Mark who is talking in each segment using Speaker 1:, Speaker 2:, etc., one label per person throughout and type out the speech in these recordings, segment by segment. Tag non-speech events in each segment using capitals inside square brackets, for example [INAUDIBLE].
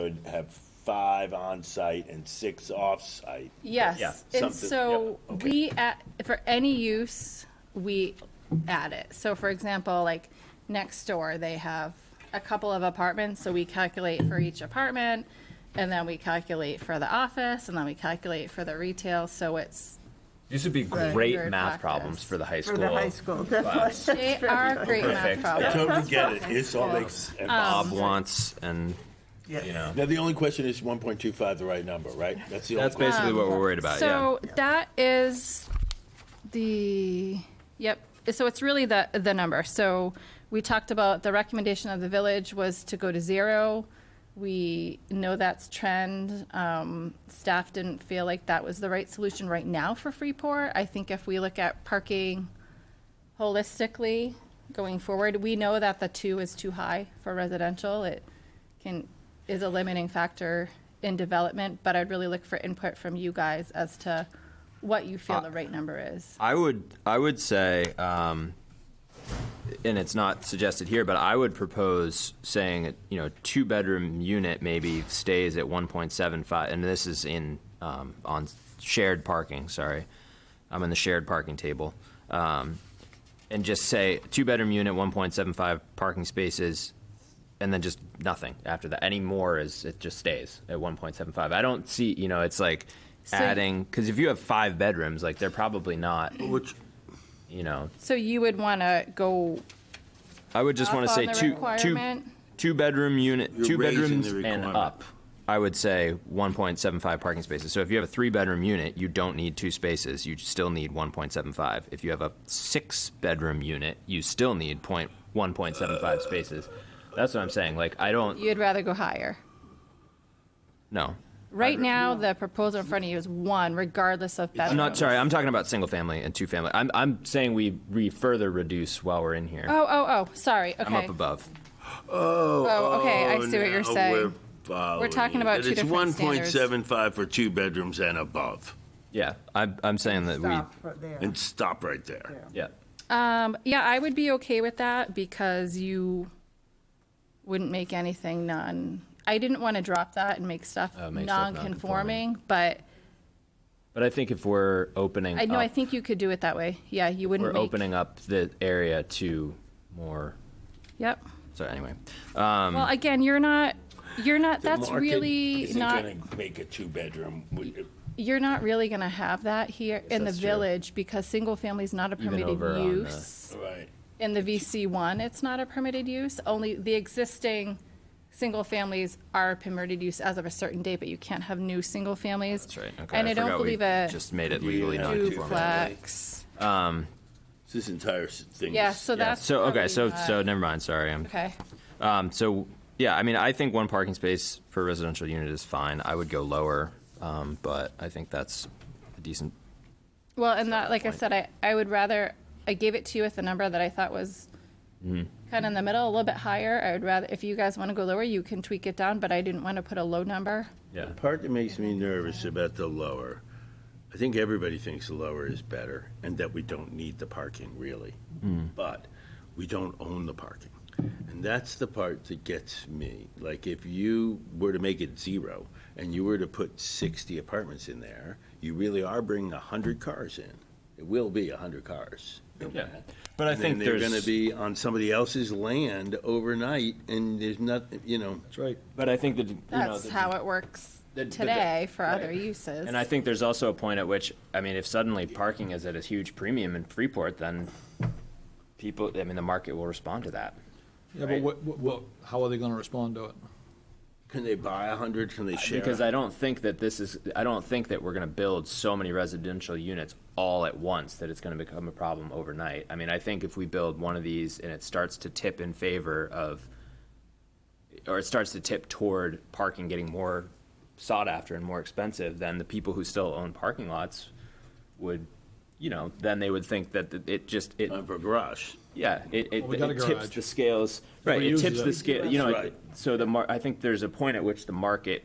Speaker 1: would have five on-site and six off-site.
Speaker 2: Yes,
Speaker 1: Yeah,
Speaker 2: and
Speaker 1: something-
Speaker 2: so
Speaker 1: yep, okay.
Speaker 2: we, add- for any use, we add it. So for example, like next door, they have a couple of apartments, so we calculate for each apartment, and then we calculate for the office, and then we calculate for the retail, so it's,
Speaker 3: These would be
Speaker 2: Right.
Speaker 3: great
Speaker 2: Standard practice.
Speaker 3: math problems for the high
Speaker 4: For
Speaker 3: school.
Speaker 4: the high school. [LAUGHS] That was-
Speaker 2: they are great math
Speaker 1: I
Speaker 3: Perfect.
Speaker 2: problems.
Speaker 1: totally get it, it's all makes.
Speaker 2: Um,
Speaker 3: Bob wants, and
Speaker 4: Yes.
Speaker 3: you know,
Speaker 1: Now, the only question is one point two five the right number, right? That's the only
Speaker 3: that's
Speaker 1: question.
Speaker 3: basically what we're worried about.
Speaker 2: Um, So that is the, yep, so it's really the, the number. So we talked about the recommendation of the village was to go to zero. We know that's trend. Um, Staff didn't feel like that was the right solution right now for Freeport. I think if we look at parking holistically going forward, we know that the two is too high for residential. It can, is a limiting factor in development, but I'd really look for input from you guys as to what you
Speaker 3: Uh,
Speaker 2: feel the right number is.
Speaker 3: I would I would say, um, and it's not suggested here, but I would propose saying you know two bedroom unit maybe stays at one point seven five, and this is in um, on shared parking. Sorry, I'm in the shared parking table, um, and just say two bedroom unit, one point seven five parking spaces. And then just nothing after that. Any more is it just stays at 1.75. I don't see, you know, it's like
Speaker 2: So-
Speaker 3: adding because if you have five bedrooms, like they're probably not
Speaker 5: Which,
Speaker 3: you know,
Speaker 2: So you would want to go
Speaker 3: I would just
Speaker 2: up on
Speaker 3: want to say
Speaker 2: the
Speaker 3: two, two,
Speaker 2: requirement?
Speaker 3: two bedroom unit,
Speaker 5: You're
Speaker 3: two
Speaker 5: raising the
Speaker 3: bedrooms and
Speaker 5: requirement.
Speaker 3: up. I would say 1.75 parking spaces. So if you have a three bedroom unit, you don't need two spaces. You still need 1.75. If you have a six bedroom unit, you still need point 1.75 spaces. That's what I'm saying. Like I don't
Speaker 2: You'd rather go higher.
Speaker 3: no.
Speaker 2: Right now, the proposal in front of you is one, regardless of bedroom.
Speaker 3: I'm not sorry. I'm talking about single family and two family. I'm I'm saying we re further reduce while we're in here.
Speaker 2: Oh, oh, oh, sorry, okay.
Speaker 3: I'm up above.
Speaker 2: Oh, okay, I see what you're
Speaker 5: now
Speaker 2: saying.
Speaker 5: We're
Speaker 2: We're talking
Speaker 5: following
Speaker 2: about
Speaker 5: it.
Speaker 2: two different standards.
Speaker 5: It's 1.75 for two bedrooms and above,
Speaker 3: Yeah, I'm I'm saying that
Speaker 4: Stop
Speaker 3: we
Speaker 4: right there.
Speaker 5: and stop right there.
Speaker 3: yeah.
Speaker 2: Um, yeah, I would be okay with that because you wouldn't make anything non, I didn't want to drop that and make stuff
Speaker 3: Uh, make stuff
Speaker 2: non-conforming, but
Speaker 3: But I think if we're opening
Speaker 2: I know, I
Speaker 3: up-
Speaker 2: think you could do it that way. Yeah, you wouldn't
Speaker 3: Oh. we're
Speaker 2: make.
Speaker 3: opening up the area to more.
Speaker 2: Yep.
Speaker 3: So anyway, Um,
Speaker 2: Well, again, you're not, you're not, that's
Speaker 1: The market
Speaker 2: really
Speaker 1: isn't
Speaker 2: not,
Speaker 1: gonna Make a two-bedroom, we-
Speaker 2: you're not really going to have that here in the
Speaker 3: that's true.
Speaker 2: village because single family's not a permitted
Speaker 3: over on uh, the-
Speaker 2: use.
Speaker 1: right,
Speaker 2: In the VC one, it's not a permitted use, only the existing single families are permitted use as of a certain date, but you can't have new single families.
Speaker 3: that's right. Okay,
Speaker 2: And I don't
Speaker 3: forgot we
Speaker 2: believe a
Speaker 3: just made it legally
Speaker 1: Yeah.
Speaker 3: non-conforming.
Speaker 1: Duplex.
Speaker 2: duplex.
Speaker 1: It's this entire s- thing.
Speaker 2: Yeah,
Speaker 1: is-
Speaker 2: so
Speaker 3: Yeah,
Speaker 2: that's.
Speaker 3: so okay,
Speaker 2: probably
Speaker 3: so
Speaker 2: not-
Speaker 3: so never mind. Sorry, I'm
Speaker 2: uh, Okay,
Speaker 3: um. So yeah, I mean, I think one parking space per residential unit is fine. I would go lower, um, but I think that's a decent.
Speaker 2: well, and that, like I said, I, I would rather, I gave it to you with a number that I thought was
Speaker 3: Mm-hmm.
Speaker 2: kind of in the middle, a little bit higher. I would rather, if you guys want to go lower, you can tweak it down, but I didn't want to put a low number.
Speaker 3: Yeah.
Speaker 5: The part that makes me nervous about the lower, I think everybody thinks the lower is better and that we don't need the parking really.
Speaker 3: Hmm.
Speaker 5: But we don't own the parking. And that's the part that gets me. Like if you were to make it zero and you were to put 60 apartments in there, you really are bringing 100 cars in. It will be 100 cars. in
Speaker 3: Yeah.
Speaker 5: that.
Speaker 3: But I
Speaker 5: And
Speaker 3: think
Speaker 5: then they're
Speaker 3: there's-
Speaker 5: going to be on somebody else's land overnight and there's not, you know. That's right.
Speaker 3: But I think that you know,
Speaker 2: That's
Speaker 3: the-
Speaker 2: how it works
Speaker 3: the- the-
Speaker 2: today for
Speaker 3: right.
Speaker 2: other uses.
Speaker 3: And I think there's also a point at which, I mean, if suddenly parking is at a huge premium in Freeport, then people, I mean, the market will respond to that.
Speaker 6: Yeah, but what, what- what, how are they gonna respond to it?
Speaker 5: Can they buy 100? Can they share?
Speaker 3: Uh, Because I don't think that this is, I don't think that we're gonna build so many residential units all at once that it's gonna become a problem overnight. I mean, I think if we build one of these and it starts to tip in favor of, or it starts to tip toward parking getting more sought after and more expensive, then the people who still own parking lots would, you know, then they would think that th- it just, it,
Speaker 5: Uh, for garage.
Speaker 3: yeah, it, it,
Speaker 6: we got
Speaker 3: it
Speaker 6: a
Speaker 3: tips
Speaker 6: garage.
Speaker 3: the scales, right, it
Speaker 6: uses
Speaker 3: tips
Speaker 6: it.
Speaker 3: the scale, you know,
Speaker 5: That's
Speaker 3: it-
Speaker 5: right.
Speaker 3: so the mar, I think there's a point at which the market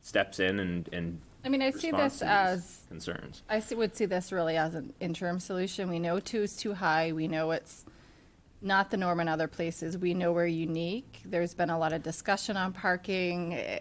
Speaker 3: steps in and, and
Speaker 2: I mean, I see
Speaker 3: responds
Speaker 2: this
Speaker 3: to
Speaker 2: as
Speaker 3: these concerns.
Speaker 2: I see- would see this really as an interim solution. We know two is too high. We know it's not the norm in other places. We know we're unique. There's been a lot of discussion on parking.